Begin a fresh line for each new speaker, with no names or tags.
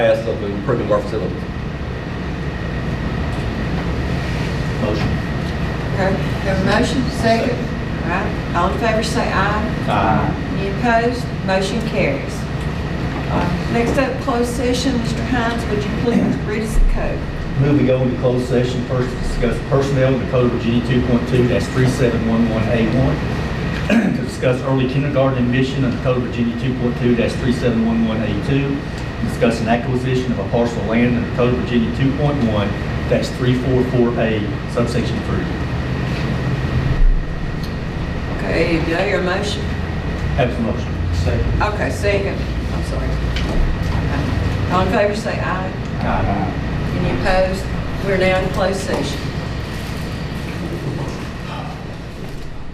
past of improving our facilities.
Motion.
Okay, have a motion, second. All right, all in favor say aye.
Aye.
Any opposed? Motion carries. Uh, Next up, closed session, Mr. Hines, would you please read us the code?
Move we go into closed session first to discuss personnel under Code of Virginia 2.2-3711A1. To discuss early kindergarten admission under Code of Virginia 2.2-3711A2. Discuss an acquisition of a parcel of land under Code of Virginia 2.1-344A subsection 3.
Okay, do I hear a motion?
Have a motion. Second.
Okay, second. I'm sorry. Okay. All in favor say aye.
Aye.
Any opposed? We're now in closed session.